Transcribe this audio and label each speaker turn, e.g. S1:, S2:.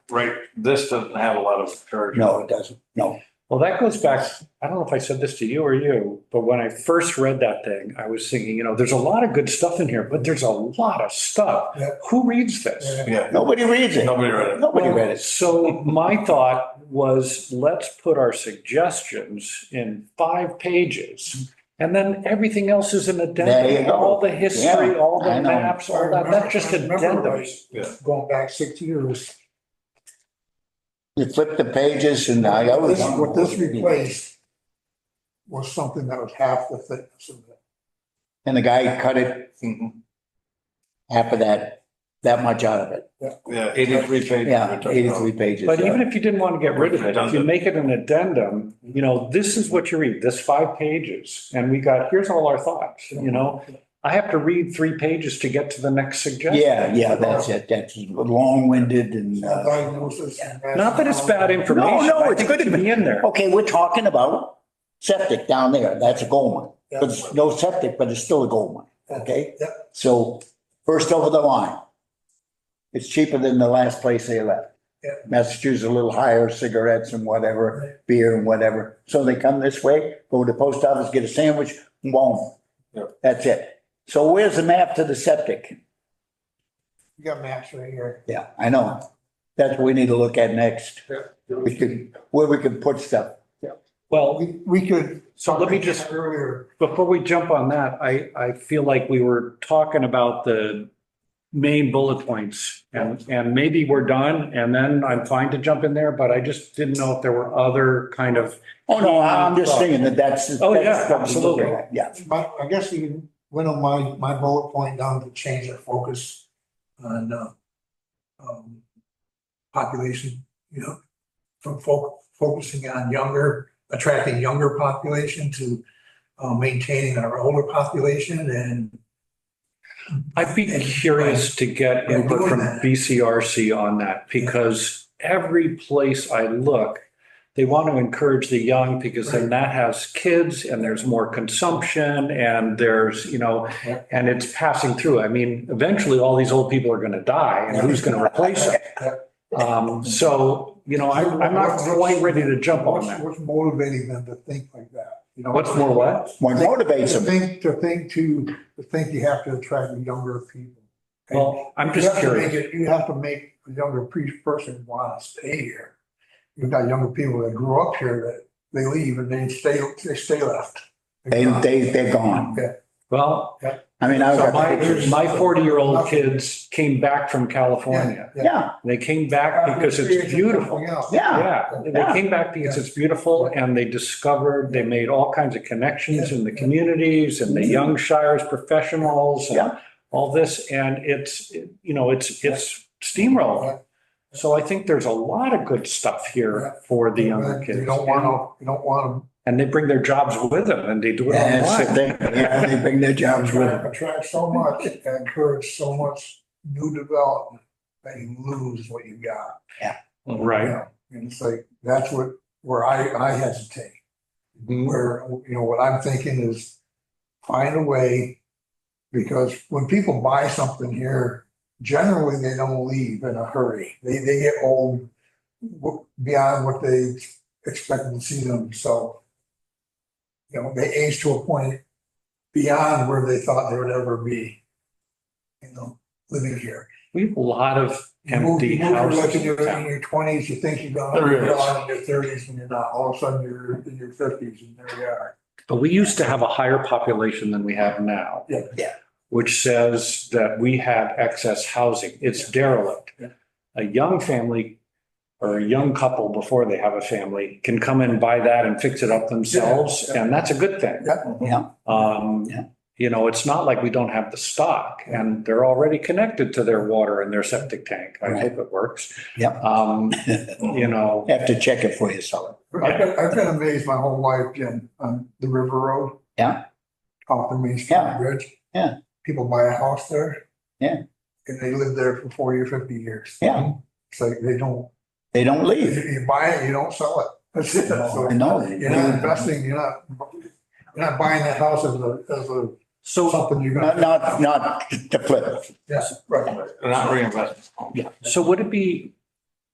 S1: right, this doesn't have a lot of charge.
S2: No, it doesn't. No.
S3: Well, that goes back, I don't know if I said this to you or you, but when I first read that thing, I was thinking, you know, there's a lot of good stuff in here, but there's a lot of stuff.
S2: Yeah.
S3: Who reads this?
S1: Yeah,
S2: Nobody reads it.
S1: nobody read it.
S2: Nobody read it.
S3: So my thought was, let's put our suggestions in five pages. And then everything else is an
S2: There you
S3: addendum,
S2: go.
S3: all the history,
S2: Yeah,
S3: all
S2: I
S3: the
S2: know.
S3: maps, all that, that's just
S4: If I remember
S3: addendums.
S4: right,
S1: Yeah.
S4: Going back six years.
S2: You flip the pages and I always.
S4: This- What this replaced was something that was half the thickness of it.
S2: And the guy cut it,
S1: Mhm.
S2: half of that, that much out of it.
S1: Yeah, eighty-three pages.
S2: Yeah,
S1: we're talking about.
S2: eighty-three pages.
S3: But
S2: yeah.
S3: even if you didn't want to get rid of it, if you
S1: Redundant.
S3: make it an addendum, you know, this is what you read, this five pages, and we got, here's all our thoughts, you know? I have to read three pages to get to the next suggestion.
S2: Yeah, yeah, that's it. That's long-winded and, uh,
S4: Diagnosis. and
S3: Not that it's bad
S4: rationale.
S3: information.
S2: no,
S3: I
S2: it's
S3: think
S2: good
S3: it should Be in there.
S2: okay, we're talking about septic down there. That's a gold mine. But it's no septic, but it's still a gold mine. okay?
S4: Yep.
S2: So first over the line. It's cheaper than the last place they left.
S4: Yep.
S2: Massachusetts a little higher, cigarettes and whatever, beer and whatever. So they come this way, go to the post office, get a sandwich, boom.
S1: Yep.
S2: That's it. So where's the map to the septic?
S4: You got maps right here.
S2: Yeah, I know. That's what we need to look at next. We could, where we can put stuff.
S3: Well,
S4: We, we could.
S3: so let me just,
S4: Earlier.
S3: before we jump on that, I, I feel like we were talking about the main bullet points and, and maybe we're done and then I'm fine to jump in there, but I just didn't know if there were other kind of,
S2: Oh, no, I'm just saying that that's.
S3: Oh, yeah,
S2: that's what we're looking
S3: absolutely.
S2: at. Yeah.
S4: My, I guess you can winnow my, my bullet point down to change our focus on, uh, um, population, you know, from fo- focusing on younger, attracting younger population to, uh, maintaining our older population and
S3: I'd be curious to get input from BCRC on that because every place I look, they want to encourage the young because then that has kids and there's more consumption and there's, you know, and it's passing through. I mean, eventually all these old people are going to die and who's going to replace them? Um, so, you know, I'm, I'm not quite ready to jump on
S4: what's,
S3: that.
S4: what's motivating them to think like that? You know,
S3: What's more what?
S2: What motivates
S4: To
S2: them?
S4: think, to think to, to think you have to attract younger people.
S3: Well, I'm
S4: You
S3: just
S4: have to
S3: curious.
S4: make it- You have to make a younger pe- person want to stay here. You've got younger people that grew up here that they leave and they stay, they stay left.
S2: They, they, they're gone.
S3: Well,
S2: I mean, I
S3: so
S2: was.
S3: my, my 40-year-old kids came back from California.
S2: Yeah,
S3: They came back because it's beautiful.
S2: yeah.
S3: Yeah, they came back because it's beautiful and they discovered, they made all kinds of connections in the communities and the young Shires professionals and
S2: Yeah.
S3: all this. And it's, you know, it's, it's steamrolling. So I think there's a lot of good stuff here for the younger kids.
S4: You don't want to, you don't want
S3: And they bring their jobs with them and they do it
S2: Yeah, that's the
S3: online.
S2: thing. Yeah, they bring their
S4: to
S2: jobs with
S4: attract,
S2: them.
S4: attract so much, and encourage so much new development that you lose what you got. you
S3: Right.
S4: know? And it's like, that's what, where I, I hesitate.
S3: Mhm.
S4: where, you know, what I'm thinking is find a way, because when people buy something here, generally they don't leave in a hurry. They, they get old w- beyond what they expected to see them, so. You know, they age to a point beyond where they thought they would ever be, you know, living here.
S3: We have a lot of
S4: You move-
S3: empty
S4: you move, you're like
S3: houses
S4: In
S3: in
S4: your, in
S3: town.
S4: your twenties, you think you're gonna,
S1: There
S4: you're
S1: is.
S4: in your thirties and you're not, all of a sudden you're in your fifties and there you are.
S3: But we used to have a higher population than we have now.
S4: Yeah.
S2: Yeah.
S3: Which says that we have excess housing. It's derelict.
S4: Yeah.
S3: A young family or a young couple before they have a family can come and buy that and fix it up themselves,
S4: Yeah.
S3: and that's a good thing.
S2: Yeah.
S3: Um,
S2: Yeah.
S3: you know, it's not like we don't have the stock and they're already connected to their water and their septic tank. I
S2: Right.
S3: hope it works.
S2: Yep.
S3: Um, you know,
S2: Have to check it for yourself.
S4: I've been, I've been amazed my whole life, Jim, on the River Road.
S2: Yeah.
S4: Off the Main
S2: Yeah.
S4: Street Bridge.
S2: Yeah.
S4: People buy a house there.
S2: Yeah.
S4: And they live there for forty or fifty years.
S2: Yeah.
S4: It's like they don't,
S2: They don't
S4: you,
S2: leave.
S4: you buy it, you don't sell it. That's it. So
S2: I know.
S4: You're not investing, you're not, you're not buying that house as a, as a,
S3: so,
S4: something you're
S2: Not,
S4: gonna.
S2: not, not to flip.
S4: Yes, right.
S1: Not reinvestment.
S3: so would it be